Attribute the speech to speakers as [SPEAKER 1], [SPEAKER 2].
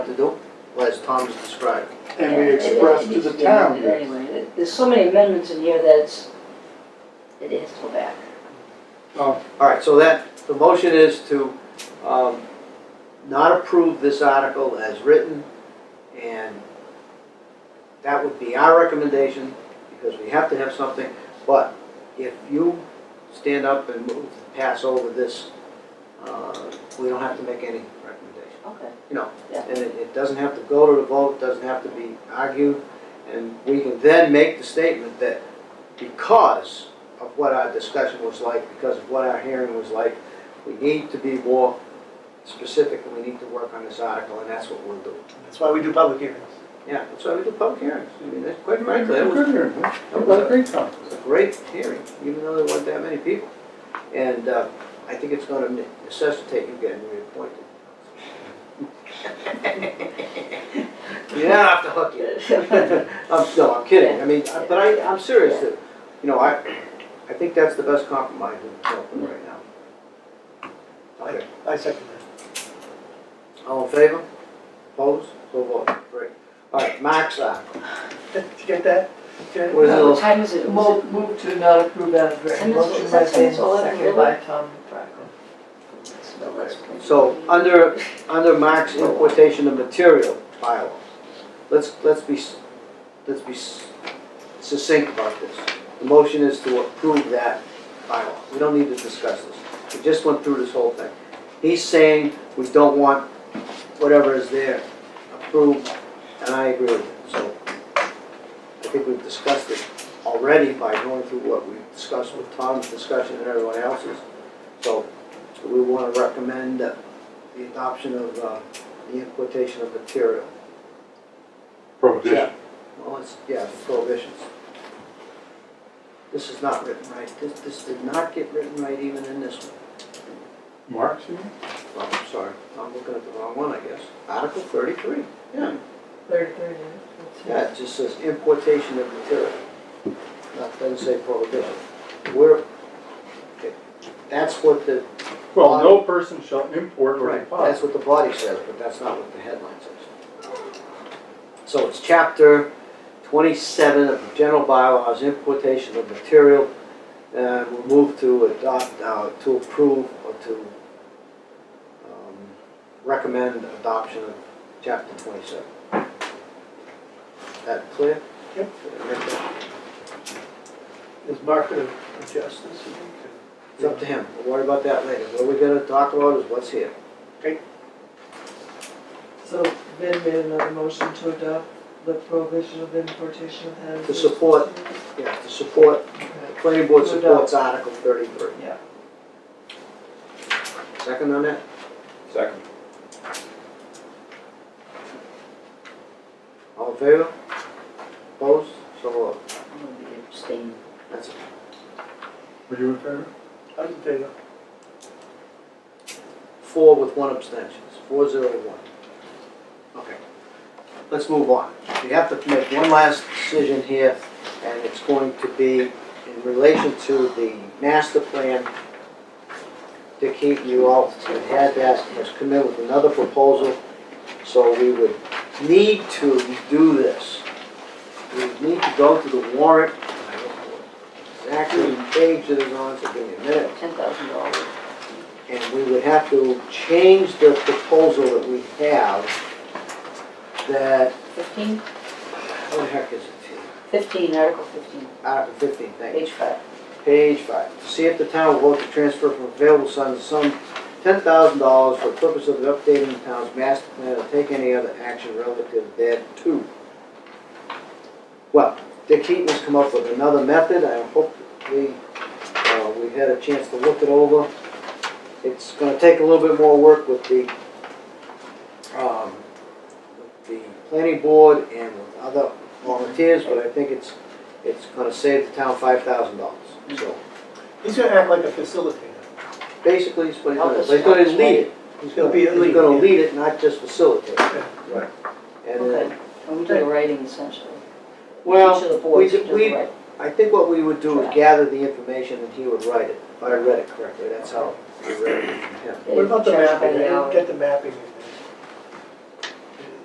[SPEAKER 1] to do, well, as Tom has described.
[SPEAKER 2] and we expressed to the
[SPEAKER 3] It
[SPEAKER 2] town.
[SPEAKER 3] needs to be amended Anyway, there's so many amendments in here that it's, it has to go back.
[SPEAKER 2] Oh,
[SPEAKER 1] All right, so that, the motion is to um, not approve this article as written, and that would be our recommendation, because we have to have something, but if you stand up and move, to pass over this, uh, we don't have to make any recommendation.
[SPEAKER 3] Okay.
[SPEAKER 1] And it, it doesn't have to go to the vote, doesn't have to be argued, and we can then make the statement that because of what our discussion was like, because of what our hearing was like, we need to be more specific, and we need to work on this article, and that's what we'll do.
[SPEAKER 4] That's why we do public hearings.
[SPEAKER 1] Yeah, that's why we do public hearings, I mean, that's quite frankly, that was,
[SPEAKER 2] Good hearing,
[SPEAKER 1] that was
[SPEAKER 2] a great time.
[SPEAKER 1] it's a great hearing, even though there weren't that many people. And uh, I think it's going to necessitate you getting reappointed. You're not off the hook yet. I'm, no, I'm kidding. I mean, I- but I, I'm serious. that, You know, I, I think that's the best compromise we can come up with right now. Okay.
[SPEAKER 4] I second
[SPEAKER 1] All in favor? Opposed? So voted. Great. All right, uh, Mark's out.
[SPEAKER 4] that. Did you get that? Did I-
[SPEAKER 1] What is it?
[SPEAKER 3] What time is it? Was
[SPEAKER 5] Mo- Move to not approve as
[SPEAKER 3] Send
[SPEAKER 5] written.
[SPEAKER 3] us-
[SPEAKER 5] Motion by
[SPEAKER 3] send us
[SPEAKER 5] Vance,
[SPEAKER 3] all of them,
[SPEAKER 5] second
[SPEAKER 3] will
[SPEAKER 5] by Tom Franklin.
[SPEAKER 3] it- no, that's-
[SPEAKER 1] So, under, under Mark's importation of material bylaw, let's, let's be, s- let's be s- succinct about this. The motion is to approve that bylaw. We don't need to discuss this. We just went through this whole thing. He's saying we don't want whatever is there approved, and I agree with him. So, I think we've discussed it already by going through what we discussed with Tom's discussion and everyone else's. So, we want to recommend the adoption of uh, the importation of material.
[SPEAKER 2] Prohibition.
[SPEAKER 1] Well, it's, yeah, prohibitions. This is not written right. This, this did not get written right even in this one.
[SPEAKER 2] Marks, you mean?
[SPEAKER 1] Well, I'm sorry, I'm looking at the wrong one, I guess. Article thirty-three. Yeah.
[SPEAKER 5] Third, third, that's it.
[SPEAKER 1] Yeah, it just says importation of material. Not, doesn't say prohibition. We're, that's what the,
[SPEAKER 2] Well, no person shall import or
[SPEAKER 1] Uh, Right,
[SPEAKER 2] deposit.
[SPEAKER 1] that's what the body says, but that's not what the headline says. So it's chapter twenty-seven of the general bylaws, importation of material. And we'll move to adopt, uh, to approve or to, um, recommend adoption of chapter twenty-seven. That clear?
[SPEAKER 4] Yep. Is market of of justice. you think?
[SPEAKER 1] It's up to him, we'll worry about that later. What we're gonna talk about is what's here.
[SPEAKER 5] So Ben made another motion to adopt the prohibition of importation of hazardous.
[SPEAKER 1] To support. Yeah, to support, the planning board
[SPEAKER 5] To
[SPEAKER 1] supports Article thirty-three.
[SPEAKER 5] Yeah.
[SPEAKER 1] Second on that?
[SPEAKER 6] Second.
[SPEAKER 1] All in favor? Opposed? So voted.
[SPEAKER 3] I'm gonna be abstaining.
[SPEAKER 1] That's it.
[SPEAKER 2] Were you in favor?
[SPEAKER 4] I didn't tell you.
[SPEAKER 1] Four with one abstention, It's four zero one. Okay. Let's move on. We have to make one last decision here, and it's going to be in relation to the master plan. Dick Heaton, you all have had that, has come in with another proposal, so we would need to do this. We would need to go to the warrant, I don't know exactly the page that is on, so give me a minute.
[SPEAKER 3] Ten thousand dollars.
[SPEAKER 1] And we would have to change the proposal that we have that,
[SPEAKER 3] Fifteen?
[SPEAKER 1] what the heck is it?
[SPEAKER 3] Fifteen, Article fifteen,
[SPEAKER 1] Article fifteen, thank you.
[SPEAKER 3] page five.
[SPEAKER 1] Page five, to see if the town will vote to transfer from available funds some ten thousand dollars for the purpose of updating the town's master plan or take any other action relative thereto. Well, Dick Heaton has come up with another method, I hope we, uh, we had a chance to look it over. It's gonna take a little bit more work with the, um, with the planning board and with other volunteers, but I think it's, it's gonna save the town five thousand dollars, so.
[SPEAKER 4] He's gonna act like a facilitator.
[SPEAKER 1] Basically, it's what he's
[SPEAKER 3] Help
[SPEAKER 1] gonna,
[SPEAKER 3] us,
[SPEAKER 1] he's gonna
[SPEAKER 3] help us,
[SPEAKER 1] lead it. He's gonna,
[SPEAKER 4] He'll be
[SPEAKER 1] he's
[SPEAKER 4] a lead,
[SPEAKER 1] gonna
[SPEAKER 4] yeah.
[SPEAKER 1] lead it, not just facilitate.
[SPEAKER 4] Yeah.
[SPEAKER 1] Right. And
[SPEAKER 3] Okay.
[SPEAKER 1] then,
[SPEAKER 3] And we do the writing essentially. Each
[SPEAKER 1] well,
[SPEAKER 3] of the boards
[SPEAKER 1] we-
[SPEAKER 3] do the
[SPEAKER 1] we-
[SPEAKER 3] writing.
[SPEAKER 1] I think what we would do is gather the information and he would write it, if I read it correctly, that's how I read it. Yeah.
[SPEAKER 3] They
[SPEAKER 4] What about the
[SPEAKER 3] charge by
[SPEAKER 4] mapping? I
[SPEAKER 3] the
[SPEAKER 4] didn't
[SPEAKER 3] hour.
[SPEAKER 4] get the mapping.